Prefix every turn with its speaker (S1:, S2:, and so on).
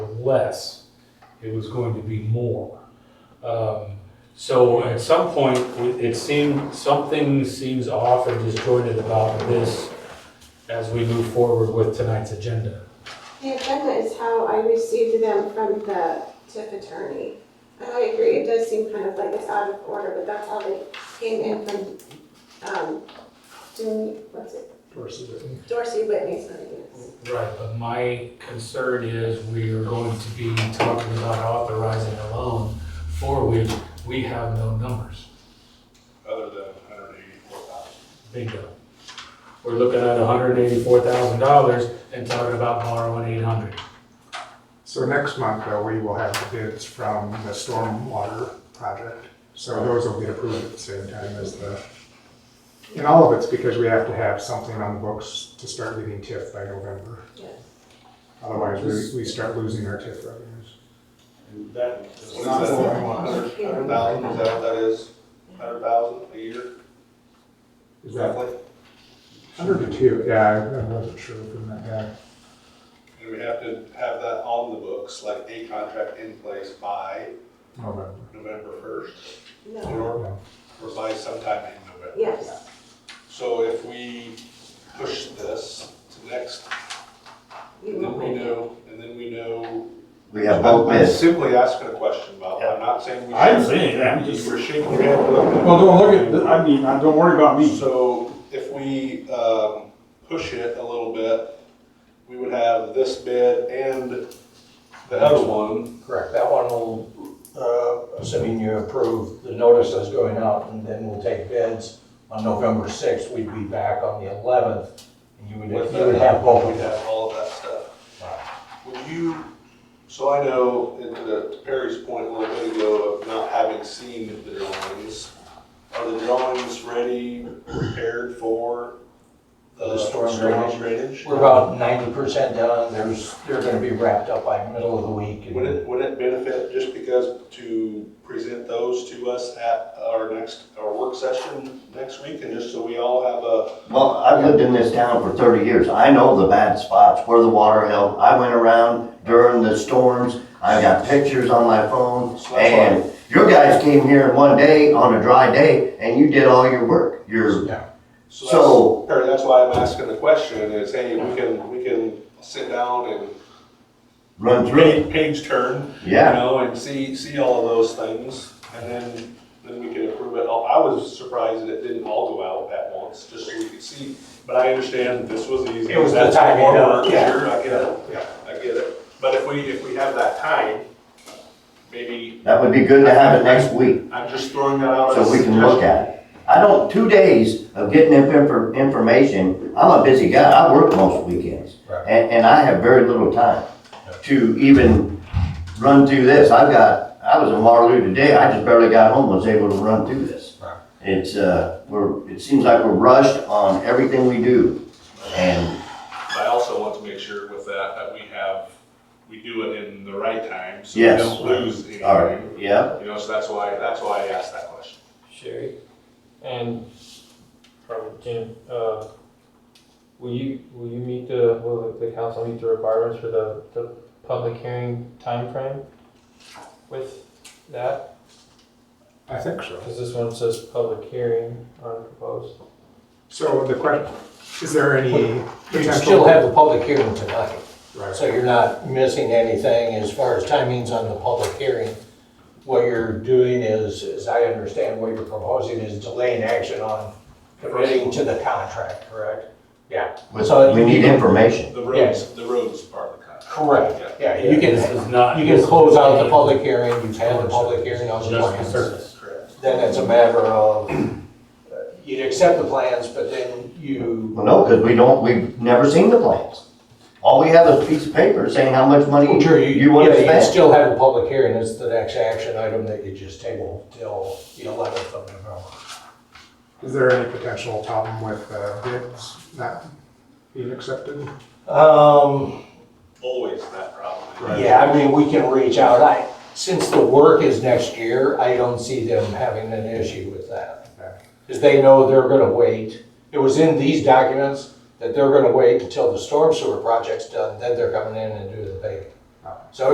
S1: less, it was going to be more. Um, So at some point, it- it seemed, something seems off and disjointed about this as we move forward with tonight's agenda.
S2: The agenda is how I received them from the TIF attorney. And I agree, it does seem kind of like it's out of order, but that's how they came in from, um, Jim, what's it, Dorsey Whitney's, I guess.
S1: Right, but my concern is we are going to be talking about authorizing a loan for which we have no numbers.
S3: other than hundred eighty-four thousand.
S1: Bingo. We're looking at hundred and eighty-four thousand dollars and talking about borrowing eight hundred.
S4: So next month, though, we will have the bids from the stormwater project. So those will get approved at the same time as the, and all of it's because we have to have something on the books to start getting TIF by November.
S2: Yes.
S4: Otherwise, we, we start losing our TIF revenues.
S3: And that is.
S5: It's not going on.
S3: Hundred thousand, is that what that is? Hundred thousand a year
S4: Is that
S3: roughly?
S4: under the two? Yeah, I I wasn't sure from that guy.
S3: And we have to have that on the books, like a contract in place by
S4: November.
S3: November first
S2: No,
S3: or,
S4: Yeah.
S3: or by sometime in November.
S2: yes,
S3: So if we push this to next,
S2: you
S3: and then
S2: won't
S3: we
S2: make it.
S3: know, and then we know.
S5: We have both
S3: I'm- I'm
S5: bids.
S3: Simply asking a question, Bob. I'm not saying we.
S6: I didn't
S3: should.
S6: say anything, I'm just-
S3: We're shaking your head. looking.
S6: Well, don't look at, th- I mean, I- don't worry about
S7: Mm.
S6: me.
S3: So if we um, push it a little bit, we would have this bid and the other one.
S7: Correct, that one will, uh, assuming you approve the notice that's going out, and then we'll take bids on November 6th. We'd be back on the 11th, and you would,
S3: with
S7: you would have both of
S3: We'd
S7: them.
S3: have all of that stuff. Would you, so I know, and to Perry's point a little bit ago of not having seen the drawings, are the drawings ready, prepared for
S7: For
S3: the
S7: the storm
S3: storm drainage?
S7: We're about 90% done, there's, they're gonna be wrapped up by middle of the week. and-
S3: Would it, would it benefit just because to present those to us at our next, our work session next week and just so we all have a,
S5: Well, I've lived in this town for thirty years. I know the bad spots where the water held. I went around during the storms. I got pictures on my phone and your guys came here in one day on a dry day and you did all your work. Your
S3: so
S5: So-
S3: that's, Perry, that's why I'm asking the question is, hey, we can, we can sit down
S5: run
S3: and
S5: through, it.
S3: really page turn, you
S5: yeah.
S3: know, and see, see all of those things. And then, then we can approve it. Oh, I was surprised that it didn't all go out at once, just so we could see. But I understand this was easy.
S7: It was the
S3: That's what
S7: timing of-
S3: we're-
S7: yeah.
S3: Sure, I get it. I get it, but if we, if we have that time, maybe,
S5: That would be good to have it next week
S3: I'm just throwing that out as a
S5: so we can look at it. I don't, two days of getting infor- information, I'm a busy guy. I work most weekends.
S7: Right.
S5: And, and I have very little time to even run through this. I've got, I was in Waterloo today, I just barely got home, was able to run through this.
S7: Right.
S5: It's, uh, we're, it seems like we're rushed on everything we do. And,
S3: I also want to make sure with that, that we have, we do it in the right time, so we
S5: Yes.
S3: don't lose anything.
S5: all right, yeah,
S3: You know, so that's why, that's why I asked that question.
S8: Sherry, and probably Jim, uh, will you, will you meet the, will the council meet the requirements for the, the public hearing timeframe with that?
S4: I think so.
S8: Because this one says public hearing on proposed.
S4: So the question, is there any
S7: You'd still
S4: potential?
S7: have the public hearing tonight,
S4: Right.
S7: so you're not missing anything as far as timings on the public hearing. What you're doing is, as I understand, what you're proposing is delaying action on committing to the contract, correct? Yeah. So
S5: we need
S7: you-
S5: information.
S3: The roads, the roads part of the contract.
S7: Correct, yeah, you
S1: This
S7: can,
S1: is not.
S7: you can close out the public hearing, you've had the public hearing on
S1: Just
S7: the
S1: the
S7: plans.
S1: surface.
S3: Correct.
S7: Then it's a matter of, uh, you'd accept the plans, but then you,
S5: Well, no, because we don't, we've never seen the plans. All we have is a piece of paper saying how much money
S7: sure, you,
S5: you want to
S7: yeah, you
S5: spend.
S7: still have a public hearing, it's the next action item that you just table till the eleventh of November.
S4: Is there any potential problem with uh, bids not being accepted?
S7: Um,
S3: Always that problem.
S7: yeah, I mean, we can reach out, I, since the work is next year, I don't see them having an issue with that.
S4: Okay.
S7: is they know they're gonna wait. It was in these documents that they're gonna wait until the storm sewer project's done, then they're coming in and doing the paving. So